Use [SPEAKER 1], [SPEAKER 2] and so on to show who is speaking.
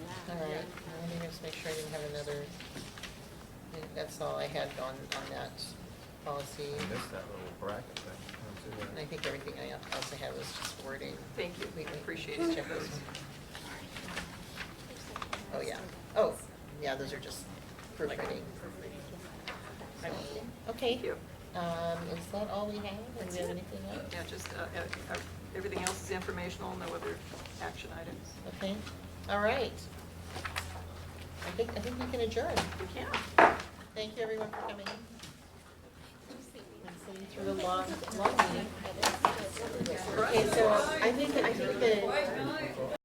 [SPEAKER 1] just make sure I didn't have another, I think that's all I had on, on that policy.
[SPEAKER 2] You missed that little bracket thing.
[SPEAKER 1] And I think everything I else I had was just wording.
[SPEAKER 3] Thank you.
[SPEAKER 1] We- we-
[SPEAKER 3] Appreciate
[SPEAKER 1] just
[SPEAKER 3] it.
[SPEAKER 1] check those. Oh, yeah. Oh, yeah, those are just proofreading. Okay.
[SPEAKER 3] Thank you.
[SPEAKER 1] Um, is that all we have? Or Do we have anything else?
[SPEAKER 3] Yeah, just, uh, uh, uh, everything else is informational, no other action items.
[SPEAKER 1] Okay, all right. I think, I think we can adjourn.
[SPEAKER 3] We can.
[SPEAKER 1] Thank you, everyone, for coming. And sitting through the long, long meeting. Okay, so I think, I think the